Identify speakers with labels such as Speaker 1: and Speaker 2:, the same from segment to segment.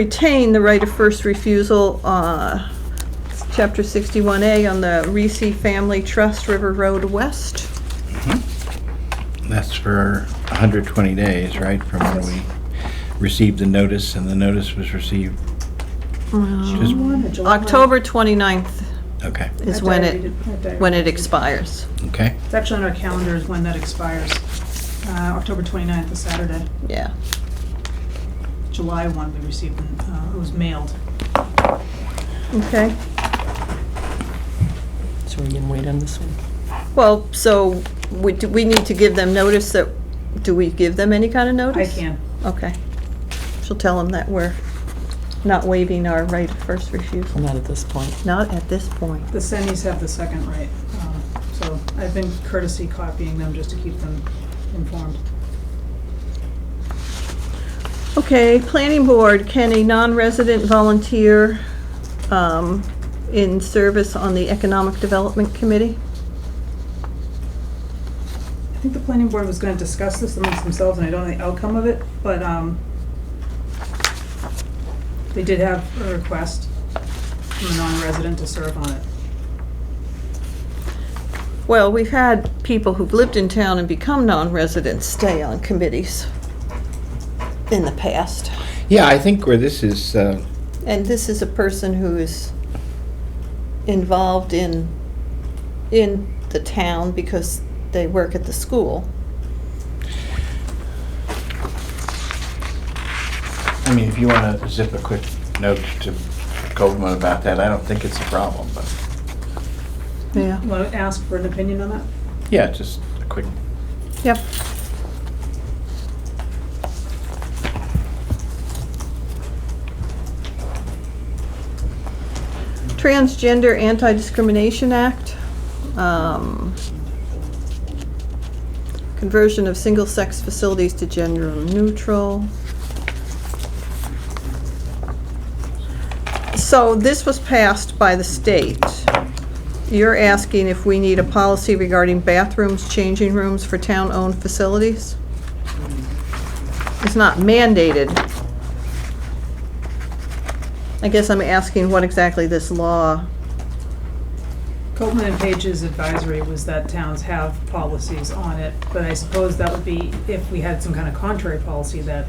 Speaker 1: retain the right of first refusal, uh, Chapter 61A on the Reese Family Trust River Road West.
Speaker 2: That's for 120 days, right, from when we received the notice, and the notice was received just,
Speaker 1: October 29th
Speaker 2: okay,
Speaker 1: is when it, when it expires.
Speaker 2: okay.
Speaker 3: It's actually on our calendar is when that expires. Uh, October 29th is Saturday.
Speaker 1: Yeah.
Speaker 3: July 1, we received, uh, it was mailed.
Speaker 1: Okay.
Speaker 4: So we can wait on this one?
Speaker 1: Well, so we, do we need to give them notice that, do we give them any kind of
Speaker 3: I
Speaker 1: notice?
Speaker 3: can.
Speaker 1: Okay. She'll tell them that we're not waiving our right of first refusal.
Speaker 4: Not at this point.
Speaker 1: Not at this point.
Speaker 3: The Sennies have the second right, um, so I've been courtesy copying them just to keep them informed.
Speaker 1: Okay, planning board, can a non-resident volunteer um, in service on the Economic Development Committee?
Speaker 3: I think the planning board was gonna discuss this amongst themselves, and I don't know the outcome of it, but, um, they did have a request from a non-resident to serve on it.
Speaker 1: Well, we've had people who've lived in town and become non-residents stay on committees in the past.
Speaker 2: Yeah, I think where this is, uh,
Speaker 1: And this is a person who is involved in, in the town because they work at the school.
Speaker 2: I mean, if you want to zip a quick note to Goldman about that, I don't think it's a problem, but,
Speaker 1: Yeah.
Speaker 3: Wanna ask for an opinion on that?
Speaker 2: yeah, just a quick,
Speaker 1: Yep. Transgender Anti-Discrimination Act. um, Conversion of single-sex facilities to gender neutral. So this was passed by the state. You're asking if we need a policy regarding bathrooms, changing rooms for town-owned facilities? It's not mandated. I guess I'm asking what exactly this law,
Speaker 3: Coleman and Page's advisory was that towns have policies on it, but I suppose that would be if we had some kind of contrary policy that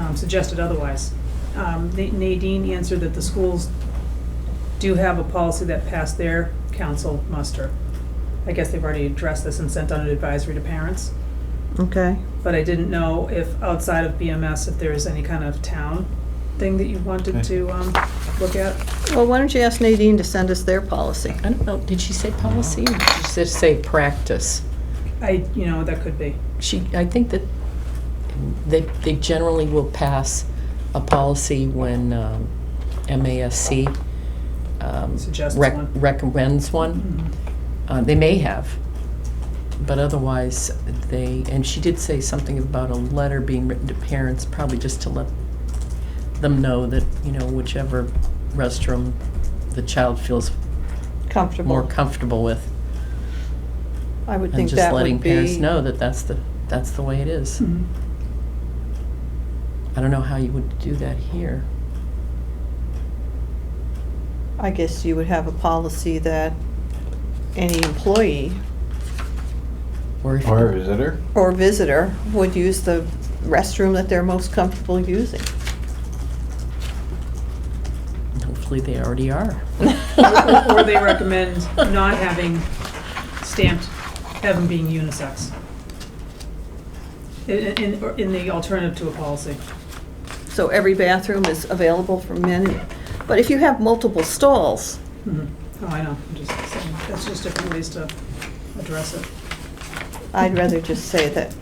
Speaker 3: um, suggested otherwise. Um, Na- Nadine answered that the schools do have a policy that passed their council muster. I guess they've already addressed this and sent out an advisory to parents,
Speaker 1: okay?
Speaker 3: but I didn't know if outside of BMS, if there is any kind of town thing that you wanted to um, look at.
Speaker 1: Well, why don't you ask Nadine to send us their policy?
Speaker 4: I don't know, did she say policy or did she just say practice?
Speaker 3: I, you know, that could be.
Speaker 4: She, I think that they, they generally will pass a policy when um, MASC um,
Speaker 3: Suggests
Speaker 4: rec-
Speaker 3: one.
Speaker 4: recommends one.
Speaker 3: Mhm.
Speaker 4: Uh, They may have, but otherwise they, and she did say something about a letter being written to parents, probably just to let them know that, you know, whichever restroom the child feels more
Speaker 1: Comfortable.
Speaker 4: comfortable with.
Speaker 1: I would
Speaker 4: And
Speaker 1: think
Speaker 4: just
Speaker 1: that would
Speaker 4: letting parents
Speaker 1: be, Hmm.
Speaker 4: know that that's the, that's the way it is.
Speaker 3: Mhm.
Speaker 4: I don't know how you would do that here.
Speaker 1: I guess you would have a policy that any employee
Speaker 4: Or if,
Speaker 2: or a visitor?
Speaker 1: or visitor would use the restroom that they're most comfortable using.
Speaker 4: hopefully they already are.
Speaker 3: Or they recommend not having stamped, having being unisex. In, in, or in the alternative to a policy.
Speaker 1: So every bathroom is available for men, but if you have multiple stalls,
Speaker 3: Mhm. Oh, I know, I'm just saying, that's just different ways to address it.
Speaker 1: I'd rather just say that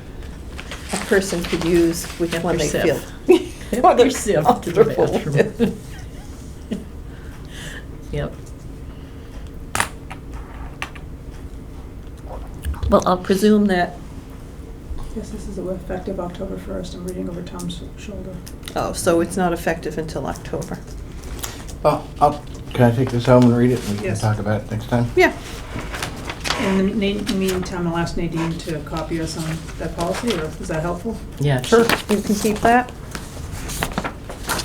Speaker 1: a person could use which
Speaker 4: Get
Speaker 1: one they
Speaker 4: their
Speaker 1: feel.
Speaker 4: sip.
Speaker 1: what they're
Speaker 4: Yourself to the
Speaker 1: comfortable
Speaker 4: bathroom.
Speaker 1: with.
Speaker 4: Yep.
Speaker 1: Well, I'll presume that,
Speaker 3: Yes, this is effective October first, I'm reading over Tom's shoulder.
Speaker 1: oh, so it's not effective until October.
Speaker 2: Well, I'll, Oh, can I take this home and read it, and we can
Speaker 3: Yes.
Speaker 2: talk about it next time?
Speaker 1: Yeah,
Speaker 3: In the na- meantime, I'll ask Nadine to copy us on that policy, or is that helpful?
Speaker 4: Yeah, sure.
Speaker 1: you can keep that.